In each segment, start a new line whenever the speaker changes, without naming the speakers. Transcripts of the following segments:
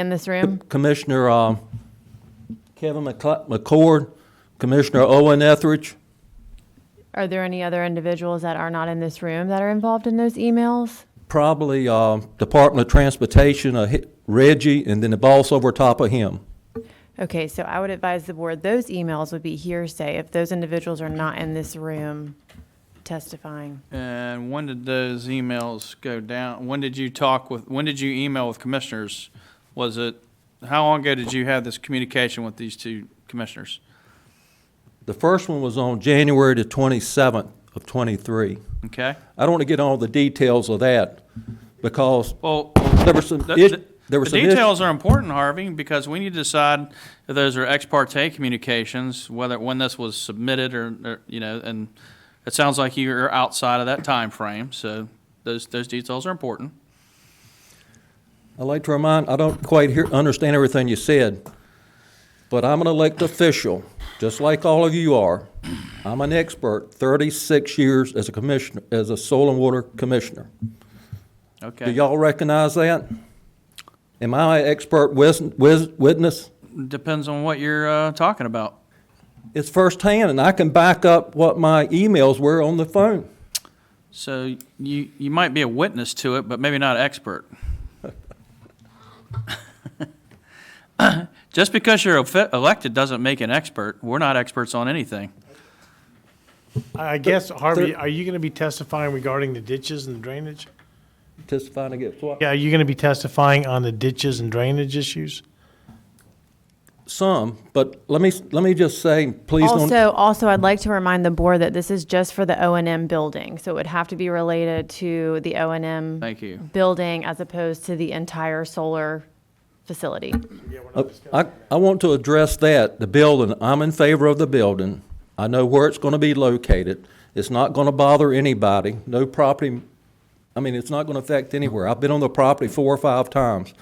in this room?
Commissioner uh, Kevin McCla- McCord, Commissioner Owen Etheridge.
Are there any other individuals that are not in this room that are involved in those emails?
probably uh, Department of Transportation, uh, hi- Reggie, and then the boss over top of him.
Okay, so I would advise the board, those emails would be hearsay if those individuals are not in this room testifying.
And when did those emails go down? When did you talk with, when did you email with commissioners? Was it, how long ago did you have this communication with these two commissioners?
The first one was on January the 27th of '23.
Okay?
I don't want to get all the details of that because
Well,
there were some
the-
ish-
the-
there were
the
some ish-
details are important, Harvey, because we need to decide if those are ex parte communications, whether, when this was submitted or, or, you know, and it sounds like you're outside of that time frame. so those, those details are important.
I'd like to remind, I don't quite hear, understand everything you said, but I'm an elected official, just like all of you are. I'm an expert, 36 years as a commissioner, as a soil and water commissioner. Do
Okay?
y'all recognize that? Am I an expert wis- wis- witness?
Depends on what you're, uh, talking about.
It's firsthand, and I can back up what my emails were on the phone.
So you, you might be a witness to it, but maybe not an expert. Just because you're efe- elected doesn't make an expert. We're not experts on anything.
I guess, Harvey, are you going to be testifying regarding the ditches and drainage?
Testifying against what?
Yeah, are you going to be testifying on the ditches and drainage issues?
Some, but let me, let me just say, please don't,
Also, also, I'd like to remind the board that this is just for the O and M building, so it would have to be related to the O and M.
Thank you.
Building as opposed to the entire solar facility.
I, I want to address that, the building. I'm in favor of the building. I know where it's going to be located. It's not going to bother anybody, no property, I mean, it's not going to affect anywhere. I've been on the property four or five times.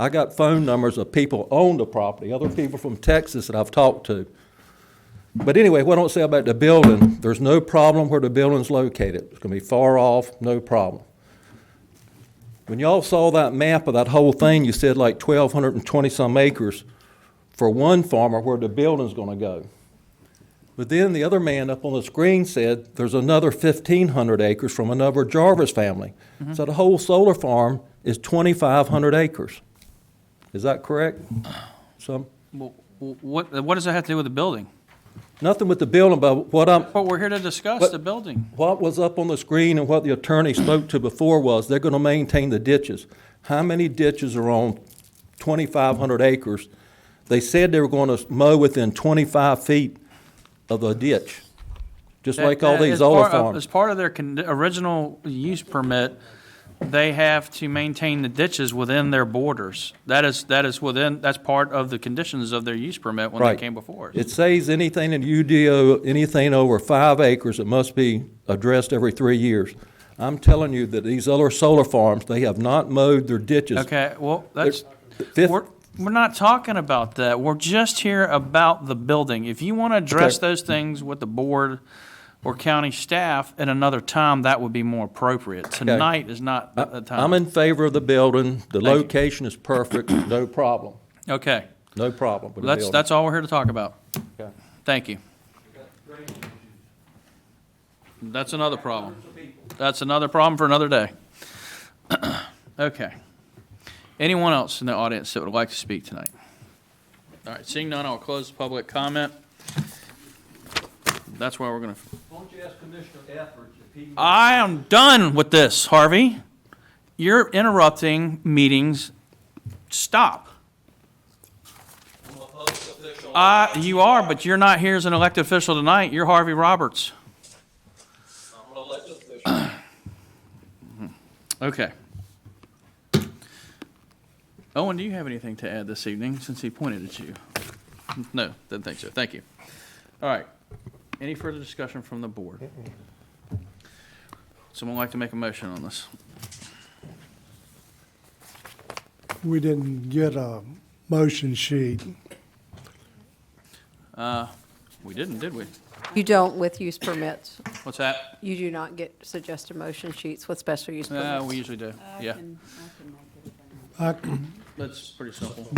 I got phone numbers of people own the property, other people from Texas that I've talked to. But anyway, what I don't say about the building, there's no problem where the building's located. It's gonna be far off, no problem. When y'all saw that map of that whole thing, you said like twelve hundred and twenty-some acres for one farmer where the building's gonna go. But then the other man up on the screen said, there's another fifteen hundred acres from another Jarvis family. So the whole solar farm is twenty-five hundred acres. Is that correct? Some,
Wh- wh- What, what does that have to do with the building?
nothing with the building, but what I'm,
But we're here to discuss
What-
the building.
What was up on the screen and what the attorney spoke to before was, they're gonna maintain the ditches. How many ditches are on twenty-five hundred acres? They said they were gonna mow within twenty-five feet of a ditch, just like all
That- that
these
is
other
part of- As
farms.
part of their con- original use permit, they have to maintain the ditches within their borders. That is, that is within, that's part of the conditions of their use permit when they
Right.
came before us.
It says anything in UDO, anything over five acres, it must be addressed every three years. I'm telling you that these other solar farms, they have not mowed their ditches.
Okay, well, that's,
fifth-
we're, we're not talking about that. We're just here about the building. If you want to address
Okay.
those things with the board or county staff at another time, that would be more appropriate. Tonight is not
I-
the time.
I'm in favor of the building, the
you.
location is perfect, no problem.
Okay,
No problem with the
that's,
building.
that's all we're here to talk about.
Okay.
Thank you. That's another problem. That's another problem for another day. Okay. Anyone else in the audience that would like to speak tonight? All right, seeing none, I'll close the public comment. That's where we're gonna,
Won't you ask Commissioner Etheridge if he...
I am done with this, Harvey. You're interrupting meetings. Stop. Uh, you are, but you're not here as an elected official tonight. You're Harvey Roberts. Okay. Owen, do you have anything to add this evening, since he pointed at you? No, didn't think so. Thank you. All right. Any further discussion from the board? Someone like to make a motion on this?
We didn't get a motion sheet.
We didn't, did we?
You don't with use permits.
What's that?
You do not get suggested motion sheets with special use
Uh, we
permits.
usually do, yeah.
I can
That's pretty simple.